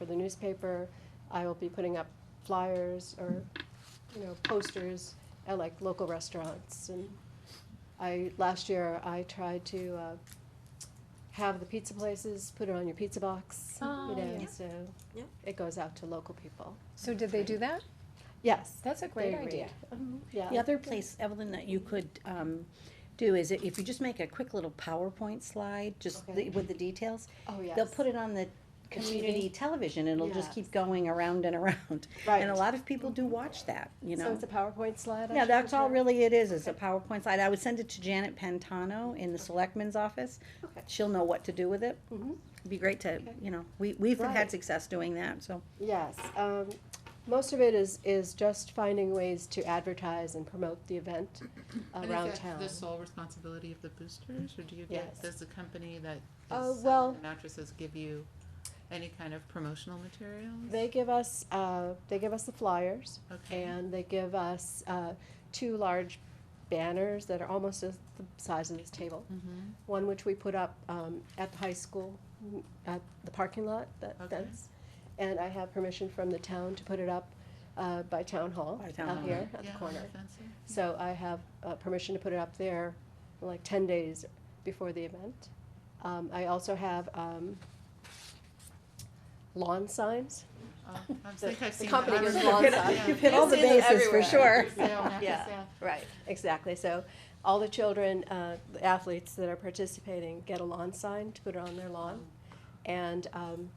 the newspaper. I will be putting up flyers or, you know, posters at like local restaurants. And I, last year, I tried to uh, have the pizza places put it on your pizza box, you Oh, know, yeah. so Yeah. it goes out to local people. So did they do that? Yes. That's a they great agree. idea. Oh, Mhm, Yeah. The other place, Evelyn, that you could um, do is if you just make a quick little PowerPoint slide, just Okay. the- with the details, Oh, yes. they'll put it on the community television, and it'll just Yes. keep going around and around. Right. Mm-hmm. And a lot of people do watch that, you So know? it's a PowerPoint slide? I Yeah, should that's all prepare? really it is, is a PowerPoint slide. I would send it to Janet Pantano in the selectman's office. Okay. She'll know what to do with it. Mhm. It'd be great to, Okay. you know, we, we've Right. had success doing that, so. Yes, um, most of it is, is just finding ways to advertise and promote the event around town. And is that the sole responsibility of the boosters, or do you Yes. get, does the company that is Uh, selling well- the mattresses give you any kind of promotional materials? They give us, uh, they give us the flyers, Okay. and they give us, uh, two large banners that are almost as the size of this table. Mhm. One which we put up, um, at the high school, mm, at the parking lot, that Okay. fence. And I have permission from the town to put it up, uh, by town hall, By town out hall. here, at the Um, Yeah, on corner. fencing. So I have uh, permission to put it up there like ten days before the event. Um, I also have um, lawn signs. Oh, I The- think I've the seen that. company I gives remember lawn that, signs. yeah. You've hit all the You've seen them bases for sure. After sale, after Yeah. sale. Right. Exactly. So all the children, uh, the athletes that are participating, get a lawn sign to put on their lawn. And um,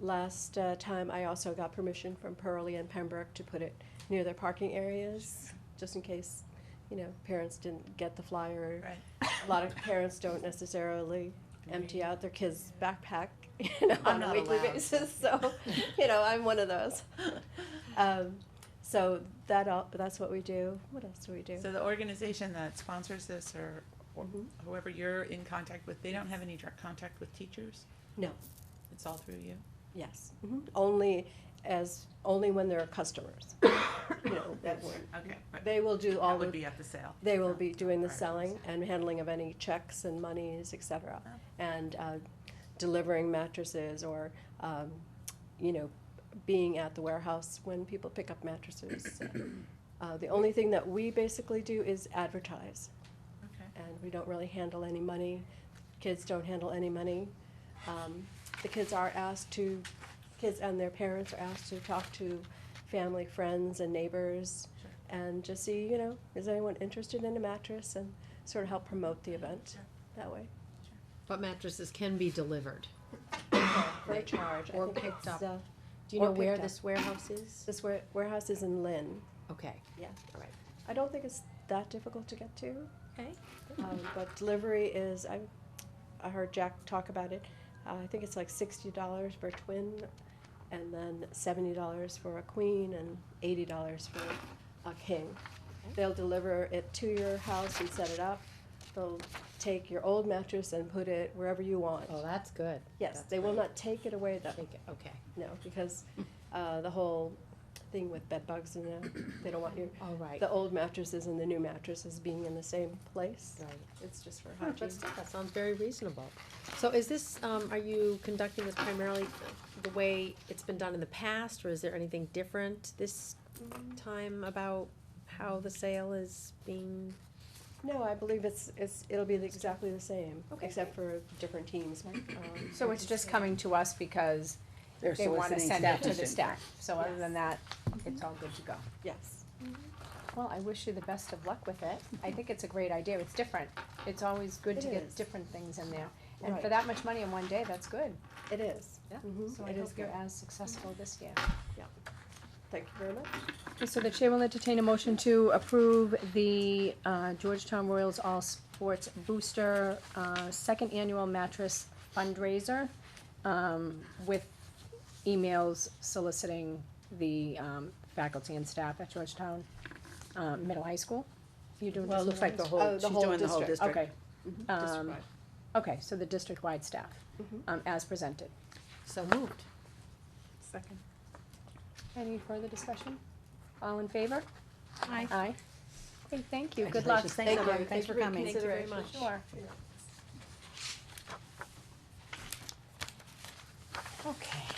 last uh, time, I also got permission from Pearlie and Pembroke to put it near their parking areas, just in case, you know, parents didn't get the flyer. A lot of parents don't necessarily empty out their kids' backpack, you know, on I'm a not weekly allowed. basis. So, you know, I'm one of those. Um, so that all, that's what we do. What else do we do? So the organization that sponsors this or or Mhm. whoever you're in contact with, they don't have any direct contact with teachers? No. It's all through you? Yes, Mhm. only as, only when there are customers. You know, that will- Okay. right. They will do all That would the, be at the sale. they will be doing the Alright. selling and handling of any checks and monies, et cetera. And uh, delivering mattresses or, um, you know, being at the warehouse when people pick up mattresses. Uh, The only thing that we basically do is advertise. Okay. and we don't really handle any money. Kids don't handle any money. Um, The kids are asked to, kids and their parents are asked to talk to family, friends, and neighbors, Sure. and just see, you know, is anyone interested in a mattress, and sort of help promote the event Sure. that way, But mattresses can be delivered. for a charge. I Or think picked it's, up. uh, Do you Or know where picked up. this warehouse is? This ware- warehouse is in Lynn. Okay. I don't think it's that difficult to get to. Okay. Um, but delivery is, I, I heard Jack talk about it, uh, I think it's like sixty dollars for a twin, and then seventy dollars for a queen, and eighty dollars for a king. They'll deliver it to your house and set it up, they'll take your old mattress and put it wherever you want. Oh, that's good. Yes, that's they will great. not take it away though, Take it, okay. no, because, uh, the whole thing with bed bugs and, uh, they don't want your, All right. the old mattresses and the new mattresses being in the same place. Right. It's just for All right, hygiene. but still, That sounds very reasonable. So is this, um, are you conducting this primarily the way it's been done in the past, or is there anything different this Mm. time about how the sale is being? No, I believe it's, it's, it'll be the- exactly the same, Okay. except for different teams. um, So it's just coming to us because They're they wanna soliciting send it to the petition. staff, so other Yes. than that, Mm-hmm. it's all good to go. Yes, Well, I wish you the best of luck with it, I think it's a great idea, it's different, it's always good to It get is. different things in there, and Right. for that much money in one day, that's good. it is. Yeah. Mhm, So I It hope is you're good. as successful this year. Thank you very much. Okay, So the chair will entertain a motion to approve the uh, Georgetown Royals All Sports Booster uh, Second Annual Mattress Fundraiser um, with emails soliciting the um, faculty and staff at Georgetown uh, Middle High School. You doing Well, it looks like the Oh, whole, the she's whole doing the whole district. district. Mm-hmm. Okay, Um, District-wide. okay, so the district-wide staff, Mhm. um, as presented. So moved. Second. Any further discussion? All in favor? Aye. Aye. Okay, thank you, good luck. Congratulations. Thanks, Thank you. everyone. Thanks for coming. Thank you very much. Sure. Yeah. Okay.